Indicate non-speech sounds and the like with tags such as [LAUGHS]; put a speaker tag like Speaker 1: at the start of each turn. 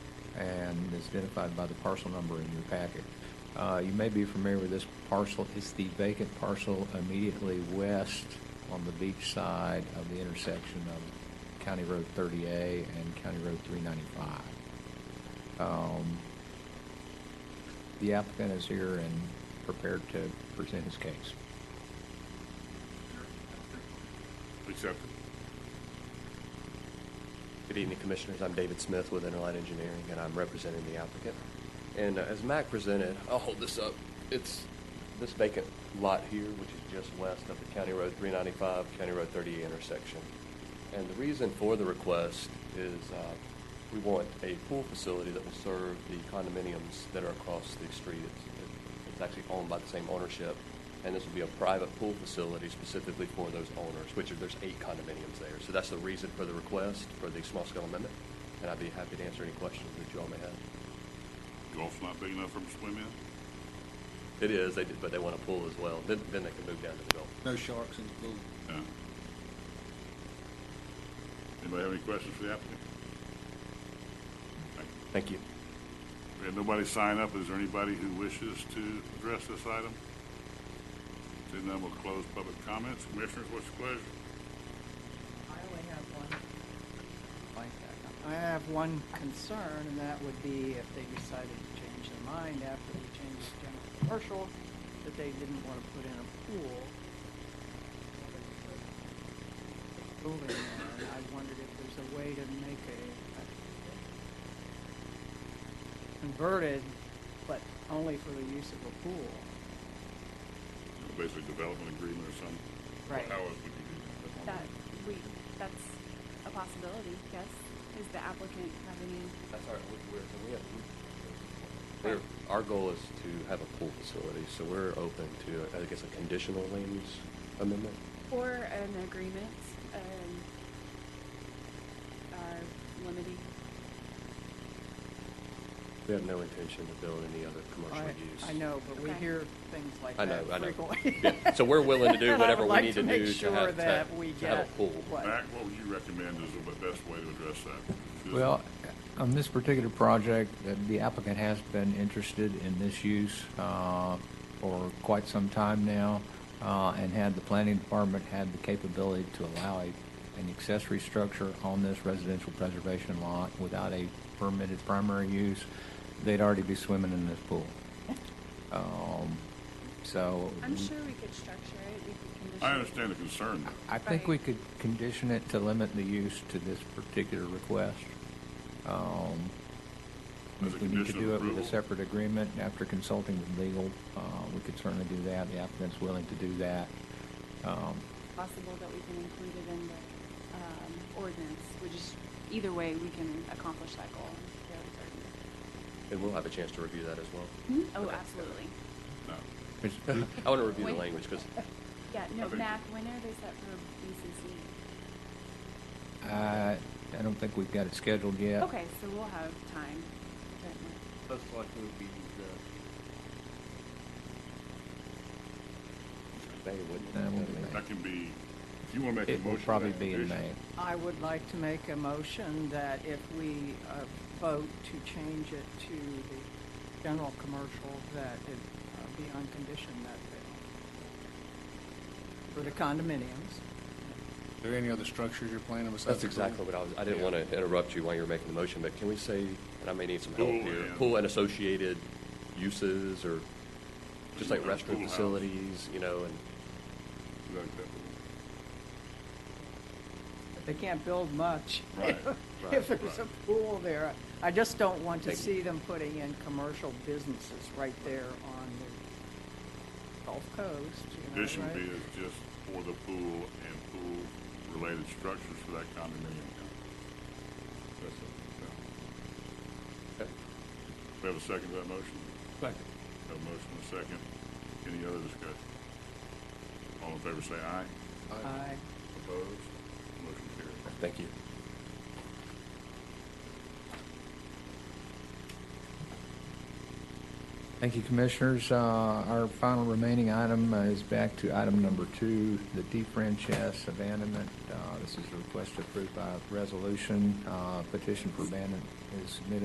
Speaker 1: and is identified by the parcel number in your packet. Uh, You may be familiar with this parcel. It's the vacant parcel immediately west on the beach side of the intersection of County Road 30A and County Road 395. Um, The applicant is here and prepared to present his case.
Speaker 2: Accepted.
Speaker 3: Good evening, Commissioners. I'm David Smith with Interline Engineering, and I'm representing the applicant. And uh, as Mac presented, I'll hold this up. It's this vacant lot here, which is just west of the County Road 395, County Road 30 intersection. And the reason for the request is uh, we want a pool facility that will serve the condominiums that are across the street. It's- It's actually owned by the same ownership, and this will be a private pool facility specifically for those owners, which are, there's eight condominiums there. So that's the reason for the request for the small scale amendment, and I'd be happy to answer any questions that you all may have.
Speaker 2: Golf's not big enough for them to swim in?
Speaker 3: It is, they did, but they want a pool as well. Then, then they can move down to the golf.
Speaker 4: No sharks in the pool.
Speaker 2: No. Anybody have any questions for the applicant? Thank you.
Speaker 3: Thank you.
Speaker 2: We had nobody sign up. Is there anybody who wishes to address this item? Seeing none, we'll close public comments. Commissioners, what's your pleasure?
Speaker 5: I only have one. I have one concern, and that would be if they decided to change their mind after they changed the general commercial, that they didn't want to put in a pool. Building there, and I wondered if there's a way to make a a- converted, but only for the use of a pool.
Speaker 2: You know, Basically development agreement or something?
Speaker 5: Right.
Speaker 2: How else would you do that?
Speaker 6: That we, that's a possibility, yes. Is the applicant have any,
Speaker 3: That's our, we- we're, so we have. We're, our goal is to have a pool facility, so we're open to, I guess, a conditional land use amendment.
Speaker 6: or an agreement, um, are limiting?
Speaker 3: We have no intention to build any other commercial
Speaker 5: I,
Speaker 3: use.
Speaker 5: I know, but we
Speaker 6: Okay.
Speaker 5: hear things like
Speaker 3: I know, I
Speaker 5: that
Speaker 3: know.
Speaker 5: frequently. [LAUGHS]
Speaker 3: Yeah, So we're willing to do
Speaker 5: And [LAUGHS] I
Speaker 3: whatever
Speaker 5: would
Speaker 3: we
Speaker 5: like
Speaker 3: need to
Speaker 5: make
Speaker 3: do to
Speaker 5: sure
Speaker 3: have, to
Speaker 5: that
Speaker 3: have
Speaker 5: we
Speaker 3: to have a
Speaker 5: get
Speaker 3: pool.
Speaker 5: what-
Speaker 2: Mac, what would you recommend is the best way to address that?
Speaker 1: Well, on this particular project, uh, the applicant has been interested in this use uh, for quite some time now, uh, and had the planning department had the capability to allow a- an accessory structure on this residential preservation lot without a permitted primary use, they'd already be swimming in this pool. Um, So.
Speaker 6: I'm sure we could structure it, we could condition.
Speaker 2: I
Speaker 6: it.
Speaker 2: understand the concern.
Speaker 1: I think we
Speaker 6: Right.
Speaker 1: could condition it to limit the use to this particular request. Um,
Speaker 2: As a
Speaker 1: We need to
Speaker 2: condition of
Speaker 1: do it with a
Speaker 2: approval.
Speaker 1: separate agreement after consulting with legal. Uh, We could certainly do that. The applicant's willing to do that. Um,
Speaker 6: Possible that we can include it in the, um, ordinance, we just, either way, we can accomplish that goal.
Speaker 3: And we'll have a chance to review that as well.
Speaker 6: Hmm? Oh,
Speaker 3: Okay.
Speaker 6: absolutely.
Speaker 2: No.
Speaker 1: which-
Speaker 3: [LAUGHS] I want to review the
Speaker 6: Wait.
Speaker 3: language because
Speaker 6: Yeah, no,
Speaker 2: Okay.
Speaker 6: Mac, when are they set for BCC?
Speaker 1: I I don't think we've got it scheduled yet.
Speaker 6: Okay, so we'll have time. to-
Speaker 7: Most likely would be the,
Speaker 3: May
Speaker 1: That
Speaker 3: wouldn't.
Speaker 1: would be May.
Speaker 2: That can be, if you want to make a
Speaker 1: It
Speaker 2: motion.
Speaker 1: will
Speaker 2: to
Speaker 1: probably
Speaker 2: that
Speaker 1: be in
Speaker 2: condition,
Speaker 1: May.
Speaker 5: I would like to make a motion that if we uh, vote to change it to the general commercial, that it uh, be on condition that they, for the condominiums.
Speaker 4: Are there any other structures you're planning besides?
Speaker 3: That's
Speaker 4: the pool?
Speaker 3: exactly what I was, I didn't want to interrupt you while you were making the motion, but can we say, and I may need some
Speaker 2: Pool
Speaker 3: help here,
Speaker 2: and-
Speaker 3: pool and associated uses or just like
Speaker 2: Pool
Speaker 3: restroom
Speaker 2: house.
Speaker 3: facilities, you know, and
Speaker 2: you like that.
Speaker 5: But They can't build much [LAUGHS]
Speaker 2: Right,
Speaker 5: if
Speaker 2: right,
Speaker 5: there's a
Speaker 2: right.
Speaker 5: pool there. I just don't want to
Speaker 3: Thank you.
Speaker 5: see them putting in commercial businesses right there on the Gulf Coast, you know,
Speaker 2: Condition
Speaker 5: right?
Speaker 2: B is just for the pool and pool-related structures for that condominium. That's it. Yeah. We have a second to that motion?
Speaker 7: Second.
Speaker 2: Have a motion and a second. Any other discussion? All in favor say aye.
Speaker 5: Aye.
Speaker 2: Opposed? Motion carries.
Speaker 3: thank you.
Speaker 1: Thank you, Commissioners. Uh, Our final remaining item uh, is back to item number two, the defranchise abandonment. Uh, This is a request approved by resolution. Uh, Petition for abandonment is submitted